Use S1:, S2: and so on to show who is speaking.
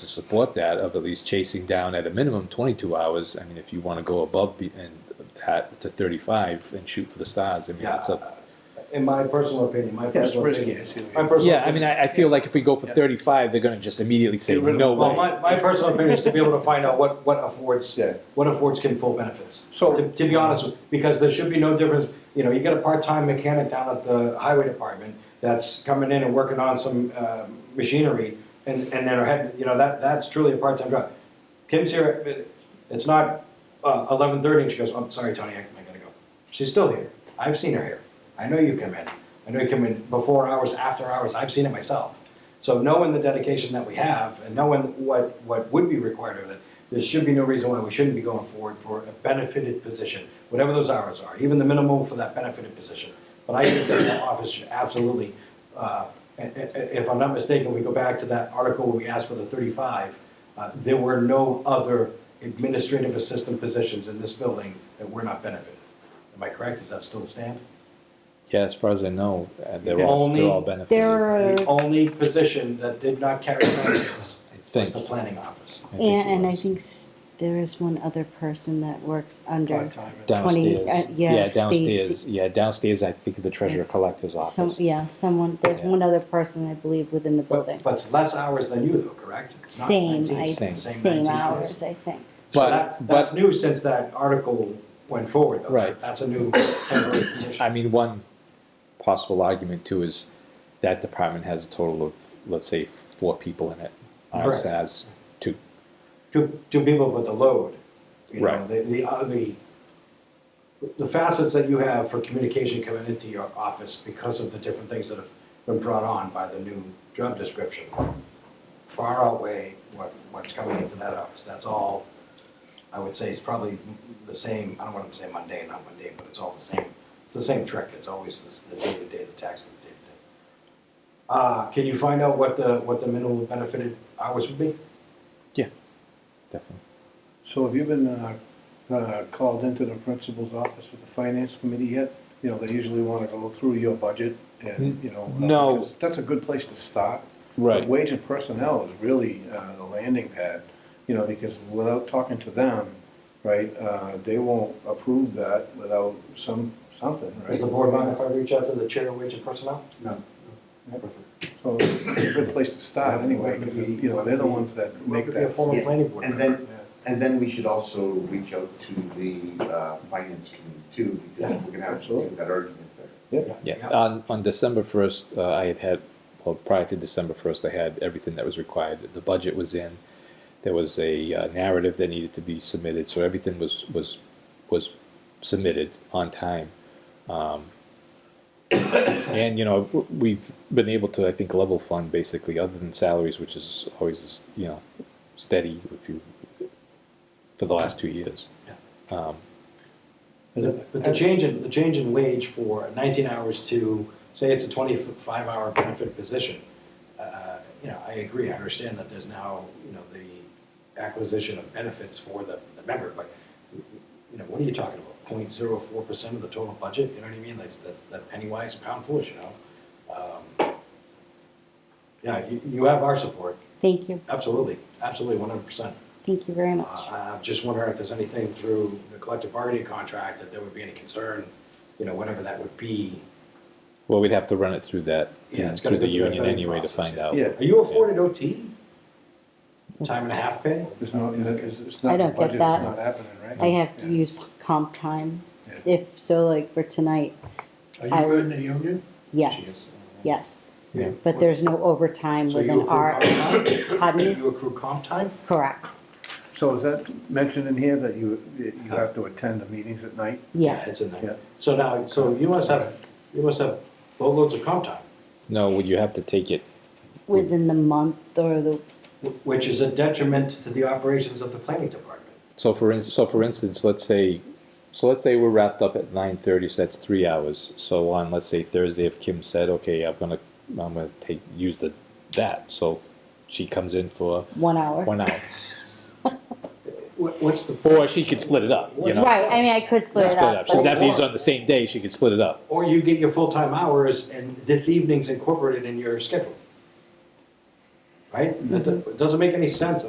S1: to support that of at least chasing down at a minimum 22 hours. I mean, if you want to go above be- and at to 35 and shoot for the stars, I mean,
S2: Yeah,
S1: it's a
S2: in my personal opinion, my
S3: it's
S2: personal
S3: risky,
S2: opinion.
S3: it's-
S2: my personal
S1: yeah. I mean,
S2: opinion-
S1: I, I feel like if we go for 35, they're going to just immediately say
S3: Get rid of
S1: no
S3: the-
S2: Well,
S1: way.
S2: my, my personal opinion is to be able to find out what, what affords,
S3: Yeah.
S2: what affords Kim full benefits.
S3: So-
S2: To, to be honest, with- because there should be no difference, you know, you get a part-time mechanic down at the highway department that's coming in and working on some, uh, machinery, and, and then, are heading- you know, that, that's truly a part-time job. Kim's here, it- it's not, uh, eleven thirty, and she goes, I'm sorry, Tony, I I gotta go. She's still here, I've seen her here, I know you come in, I know you come in before hours, after hours, I've seen it myself. So knowing the dedication that we have and knowing what, what would be required of it, there should be no reason why we shouldn't be going forward for a benefited position, whatever those hours are, even the minimum for that benefited position. But I think that the office should absolutely, uh, i- i- if I'm not mistaken, we go back to that article where we asked for the thirty-five. uh, There were no other administrative assistant positions in this building that were not benefited. Am I correct? Does that still stand?
S1: Yeah, as far as I know, uh, they're,
S2: Yeah.
S1: all, they're
S2: Only-
S1: all benefited.
S2: The
S4: There are,
S2: only position that did not carry benefits was
S1: Thank
S2: the
S1: you.
S2: planning office.
S1: I think
S4: yeah,
S1: it
S4: and I
S1: was.
S4: think s- there is one other person that works under,
S1: downstairs.
S4: 20, uh,
S1: yeah,
S4: yeah,
S1: downstairs.
S4: Stacy.
S1: Yeah, downstairs. I think of the treasurer collector's
S4: some,
S1: office.
S4: yeah, someone, there's
S1: Yeah.
S4: one other person, I believe, within the building.
S2: But, but it's less hours than you though, correct? It's not
S4: Same,
S2: 19,
S4: I,
S1: same
S4: same
S2: 19
S4: hours, I think.
S2: So
S1: But-
S2: that,
S1: but-
S2: that's new since that article went forward though.
S1: Right.
S2: That's a new temporary position.
S1: I mean, one possible argument too is that department has a total of, let's say, four people in it. Ours
S2: Correct.
S1: has two.
S2: Two, two people with the load, you know,
S1: Right.
S2: the, the, uh, the, the facets that you have for communication coming into your office because of the different things that have been brought on by the new job description far outweigh what, what's coming into that office. That's all, I would say, it's probably the same, I don't want to say mundane, not mundane, but it's all the same. It's the same trick. It's always this- the day-to-day, the tax of the day-to-day. Uh, can you find out what the, what the minimum benefited hours would be?
S1: Definitely.
S3: So have you been uh, uh, called into the principal's office with the finance committee yet? You know, they usually want to go through your budget and, you know. uh,
S1: No.
S3: because That's a good place to start. But Wage and personnel is really uh, the landing pad, you know, because without talking to them, right, uh, they won't approve that without some, something,
S2: Does
S3: right?
S2: the board mind if I reach out to the chair of wage and personnel? No.
S3: So it's a good place to start anyway, because, you know, they're the ones that
S2: Make
S3: make
S2: it be a
S3: that.
S2: former planning board
S5: And
S2: member.
S5: then, and then we should also reach out to the uh, finance committee too, because we're gonna have to do that argument there.
S1: Yeah, on, on December first, uh, I had had, well, prior to December first, I had everything that was required. The budget was in, there was a uh, narrative that needed to be submitted, so everything was, was, was submitted on time. Um, And, you know, w- we've been able to, I think, level fund basically, other than salaries, which is always, you know, steady if you, for the last two years. Um,
S2: But the change in, the change in wage for 19 hours to, say it's a 25-hour benefit position, uh, you know, I agree, I understand that there's now, you know, the acquisition of benefits for the the member, but, you know, what are you talking about? 0.04% of the total budget, you know what I mean? That's, that's- that penny wise, pound foolish, you know? Um, Yeah, you, you have our support,
S4: Thank you,
S2: absolutely, absolutely, 100%.
S4: thank you very
S2: Uh,
S4: much.
S2: I'm just wondering if there's anything through the collective bargaining contract that there would be any concern, you know, whatever that would be.
S1: Well, we'd have to run it through that,
S2: Yeah, it's
S1: through
S2: gotta
S1: the
S2: go through that
S1: union
S2: vetting
S1: anyway to
S2: process,
S1: find
S2: yeah.
S1: out.
S3: Yeah,
S2: Are you afforded OT? Time and a half pay?
S3: there's no, it's it's not.
S4: I don't
S3: the
S4: get
S3: budget is
S4: that.
S3: not happening, right?
S4: I have to
S3: Yeah.
S4: use comp time,
S3: Yeah.
S4: if, so like for tonight, I-
S6: Are you in the union?
S4: yes, yes.
S2: uh, Yeah.
S4: But there's no overtime
S2: So you
S4: within
S2: accrue
S4: our,
S2: comp time?
S4: pardon me,
S2: You accrue comp time?
S4: correct,
S3: So is that mentioned in here that you, that you have to attend the meetings at night?
S2: Yeah, It's
S4: yes.
S2: in
S3: Yeah.
S2: there. So now, so you must have, you must have boatloads of comp time,
S1: No, would you have to take it?
S4: Within the month or the,
S2: wh- which is a detriment to the operations of the planning department.
S1: So for instance, so for instance, let's say, so let's say we're wrapped up at nine thirty. So that's three hours. So on, let's say Thursday, if Kim said, "Okay, I'm gonna, I'm gonna take use the that," so she comes in for
S4: one hour.
S1: one hour,
S2: What- What's the,
S1: or she could split it up. You know,
S4: Right, I mean, I could split
S1: split
S4: it
S1: it
S4: up.
S1: up. She doesn't have to
S4: but-
S1: use it on the same day. She could split it up.
S2: or you get your full-time hours and this evening's incorporated in your schedule. right? That do- it doesn't make any sense